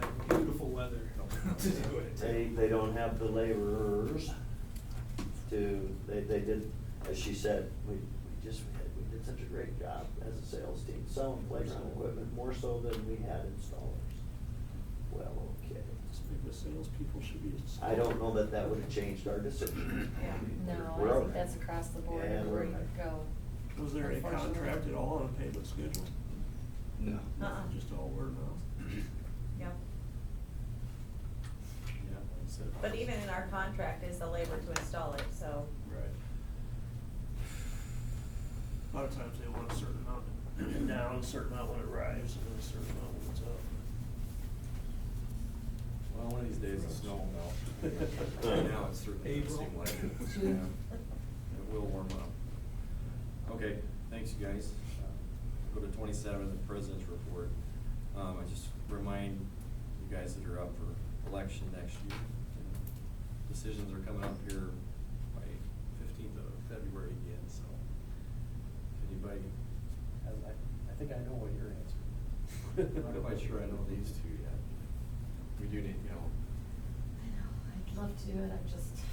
to do it. They, they don't have the laborers to, they, they did, as she said, we, we just, we had- we did such a great job as a sales team selling playground equipment, more so than we had installers. Well, okay. Maybe the salespeople should be. I don't know that that would've changed our decision. Yeah. We're No, I over. think that's across the board Yeah, we're where you over. go. Was there any Unfortunately. contract at all on a payment schedule? No. Uh-uh, Just all word of mouth? yeah. Yeah, that's it. But even in our contract is the labor to install it, so, Right. A lot of times they want a certain amount down, a certain amount when it arrives, and then a certain amount when it's Well, one of these days, the snow will melt. up. Yeah. Right now, it's through, it April. seems like it. Yeah. It will warm up. Okay, thanks, you guys. Uh, Go to twenty-seven, the president's report. Um, I just remind you guys that are up for election next year. Decisions are coming up here by fifteenth of February again, so if anybody has, I, I think I know what your answer is. I'm not quite sure I know these two yet. We do need help. I know, I'd love to do it, I'm just.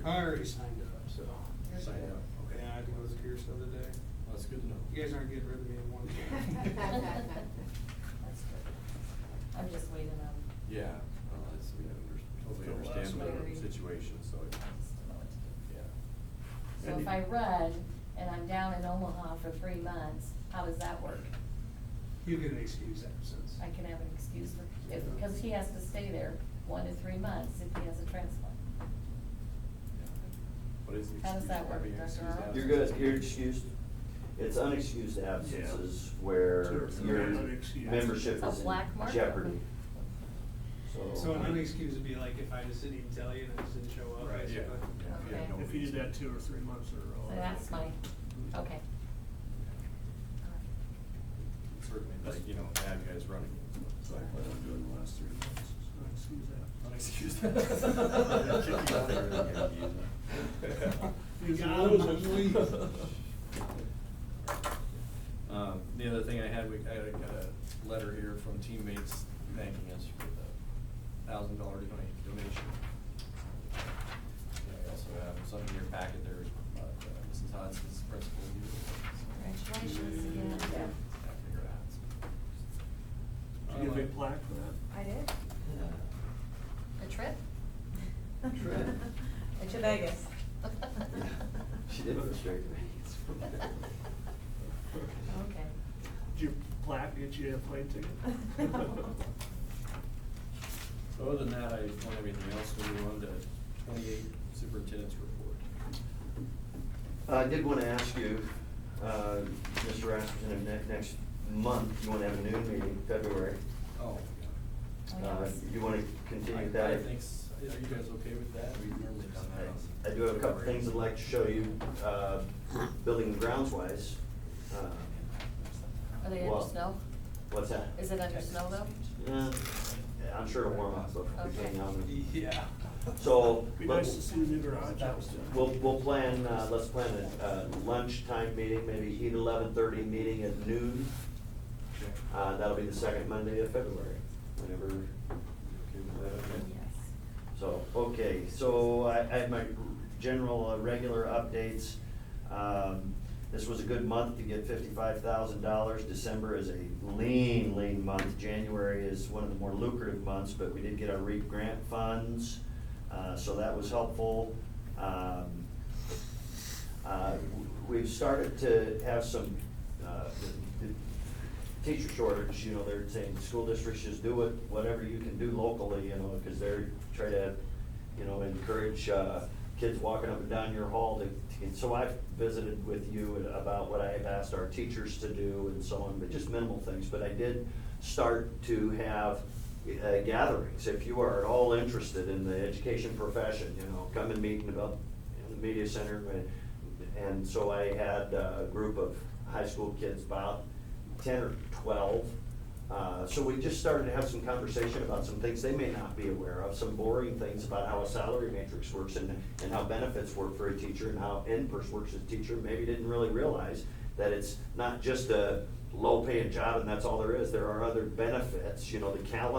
I already signed up, so. Sign up, okay. Yeah, I did with Pierce the other day. Well, that's good to know. uh, You guys aren't getting rid of me in one. That's good. I'm just waiting on, Yeah, well, it's, we under- totally Go last understand week. the situation, so, I just don't know what to do. yeah. So if I run and I'm down in Omaha for three months, how does that work? You get an excuse absence. I can have an excuse for, if, because he has to stay there one to three months if he has a transplant. yeah. What is the excuse? How does that work, Having Dr. excused Earl? You're absence? good, you're excused, it's unexcused absences Sure, where it's your unexcused. membership A is black mark? in jeopardy. So an unexcused would be like if I just didn't even tell you and I just didn't show up, Right, yeah, basically. yeah, if you had Okay. no If you did reason. that two or three months in a row. So that's my, okay. Certainly, like, you know, bad guys running. So I plan on doing the last three months, so excuse Unexcused. that. Kick you out there You got him, I'm leaving. Um, the other thing I had, we, I got a letter here from teammates thanking us for the thousand dollar donation. Yeah, I also have something in your packet there, about uh, Mrs. Hudson's principal. Congratulations again. Did you get a big plaque for that? I did. A trip? Trip. To Vegas. Oh, She did go straight to me. Okay. Did your plaque get you a plane ticket? So other than that, I don't have anything else, we move on to twenty-eight superintendent's report. Uh, I did want to ask you, uh, Mr. Rasmussen, if ne- next month, you want to have a noon meeting, February? Oh. Oh, yeah, Uh, let's- You want to continue that? I think, s- are you guys okay with that? We've normally done I that. I do have a couple things I'd like to show you, uh, building and grounds wise. Uh, Are they under Well- snow? What's that? Is it under snow though? Uh, I'm sure it'll warm up, but between now and then. Yeah. So, Be but- nice to see the new garage. We'll, we'll plan, uh, let's plan a uh, lunchtime meeting, maybe eight, eleven thirty meeting at noon. Uh, that'll be the second Monday of February, whenever. you're okay with that, okay? So, okay, so I, I have my general, uh, regular updates. Um, this was a good month to get fifty-five thousand dollars. December is a lean, lean month. January is one of the more lucrative months, but we did get our REAP grant funds, uh, so that was helpful. Um, uh, We've started to have some, uh, the- the teacher shortage, you know, they're saying, school districts just do it, whatever you can do locally, you know, because they're trying to, you know, encourage uh, kids walking up and down your hall to, to- and so I've visited with you about what I have asked our teachers to do and so on, but just minimal things. But I did start to have uh, gatherings, if you are at all interested in the education profession, you know, come and meet about in the media center. and- And so I had uh, a group of high school kids, about ten or twelve. Uh, So we just started to have some conversation about some things they may not be aware of, some boring things about how a salary matrix works and, and how benefits work for a teacher and how in-person works as a teacher, maybe didn't really realize that it's not just a low-paying job and that's all there is. There are other benefits, you know, the calendar.